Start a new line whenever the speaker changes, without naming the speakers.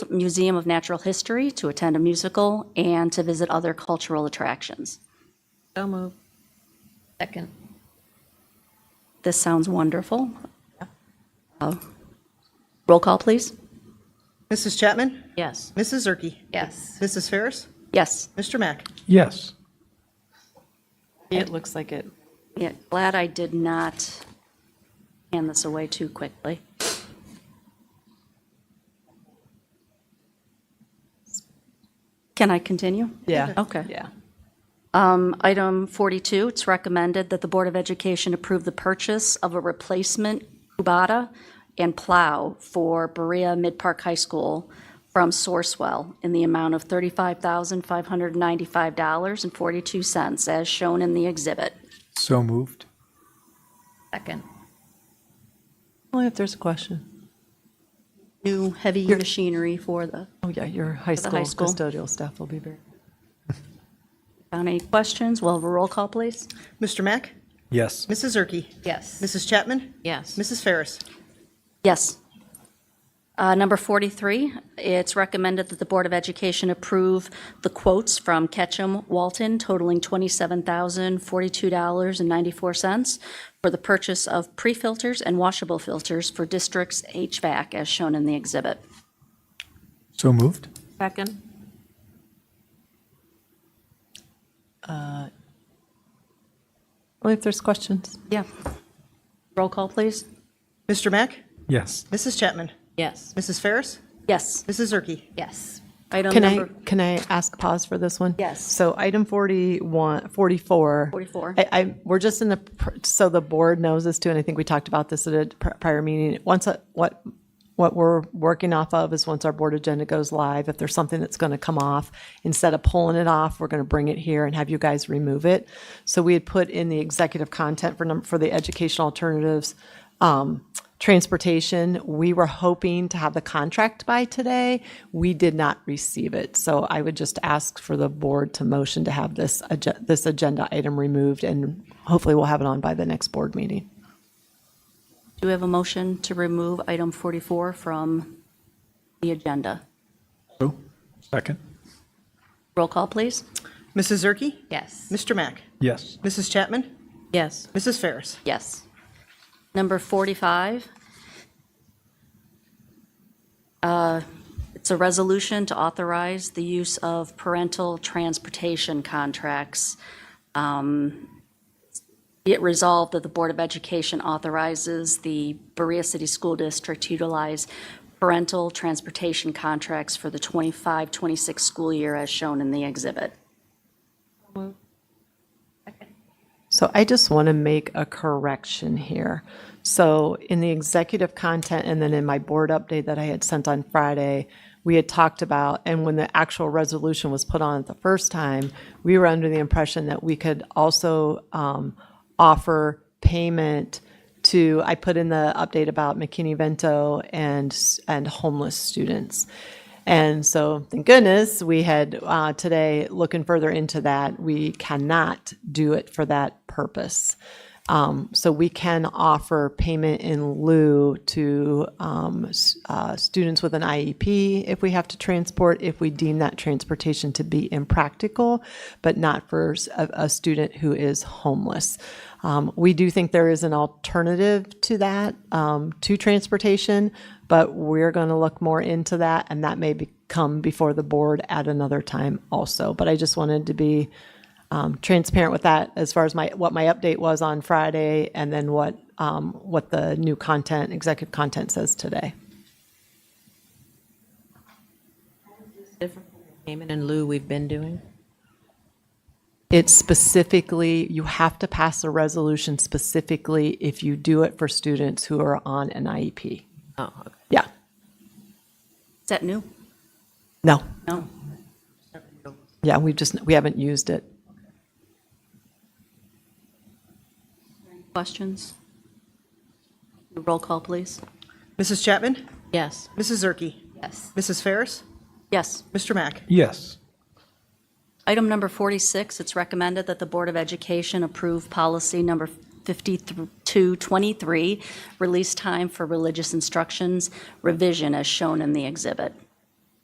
Museum of Natural History to attend a musical and to visit other cultural attractions.
So moved. Second.
This sounds wonderful. Uh, Roll call, please.
Mrs. Chapman?
Yes.
Mrs. Zerke?
Yes.
Mrs. Ferris?
Yes.
Mr. Mack?
Yes.
It looks like it.
Yeah, glad I did not hand this away too quickly. Can I continue?
Yeah.
Okay.
Yeah.
Um, Item 42, it's recommended that the Board of Education approve the purchase of a replacement Kubota and plow for Berea Mid-Park High School from Sourcewell in the amount of $35,595.42, as shown in the exhibit.
So moved.
Second.
Only if there's a question.
New heavy machinery for the
Oh, yeah, your high
the
school
high school.
custodial staff will be very.
Found any questions? We'll have a roll call, please.
Mr. Mack?
Yes.
Mrs. Zerke?
Yes.
Mrs. Chapman?
Yes.
Mrs. Ferris?
Yes. Uh, Number 43, it's recommended that the Board of Education approve the quotes from Ketchum Walton totaling $27,042.94 for the purchase of pre-filters and washable filters for districts HVAC, as shown in the exhibit.
So moved.
Second.
Uh, Only if there's questions.
Yeah. Roll call, please.
Mr. Mack?
Yes.
Mrs. Chapman?
Yes.
Mrs. Ferris?
Yes.
Mrs. Zerke?
Yes.
Item
Can I,
number
can I ask pause for this one?
Yes.
So item 41, 44.
44.
I, I, we're just in the, pr- so the board knows this too, and I think we talked about this at a pr- prior meeting. Once, a- what, what we're working off of is once our board agenda goes live, if there's something that's going to come off, instead of pulling it off, we're going to bring it here and have you guys remove it. So we had put in the executive content for, num- for the educational alternatives, um, transportation. We were hoping to have the contract by today. We did not receive it. So I would just ask for the board to motion to have this, agen- this agenda item removed and hopefully we'll have it on by the next board meeting.
Do we have a motion to remove item 44 from the agenda?
So. Second.
Roll call, please.
Mrs. Zerke?
Yes.
Mr. Mack?
Yes.
Mrs. Chapman?
Yes.
Mrs. Ferris?
Yes. Number 45. uh, It's a resolution to authorize the use of parental transportation contracts. Um, Be It resolved that the Board of Education authorizes the Berea City School District to utilize parental transportation contracts for the 25-26 school year as shown in the exhibit.
So I just want to make a correction here. So in the executive content and then in my board update that I had sent on Friday, we had talked about, and when the actual resolution was put on the first time, we were under the impression that we could also um, offer payment to, I put in the update about McKinney-Vento and, and homeless students. And so, thank goodness, we had uh, today looking further into that. We cannot do it for that purpose. Um, so we can offer payment in lieu to um, s- uh, students with an IEP if we have to transport, if we deem that transportation to be impractical, but not for s- a, a student who is homeless. Um, we do think there is an alternative to that, um, to transportation, but we're going to look more into that, and that may be, come before the board at another time also. But I just wanted to be um, transparent with that as far as my what my update was on Friday, and then what um, what the new content, executive content, says today.
Payment in lieu we've been doing.
It's specifically, you have to pass a resolution specifically if you do it for students who are on an IEP.
Oh, okay.
Yeah.
Is that new?
No.
No?
Yeah, we just, we haven't used it.
Questions? Roll call, please.
Mrs. Chapman?
Yes.
Mrs. Zerke?
Yes.
Mrs. Ferris?
Yes.
Mr. Mack?
Yes.
Item number 46, it's recommended that the Board of Education approve policy number 5223, release time for religious instructions revision as shown in the exhibit.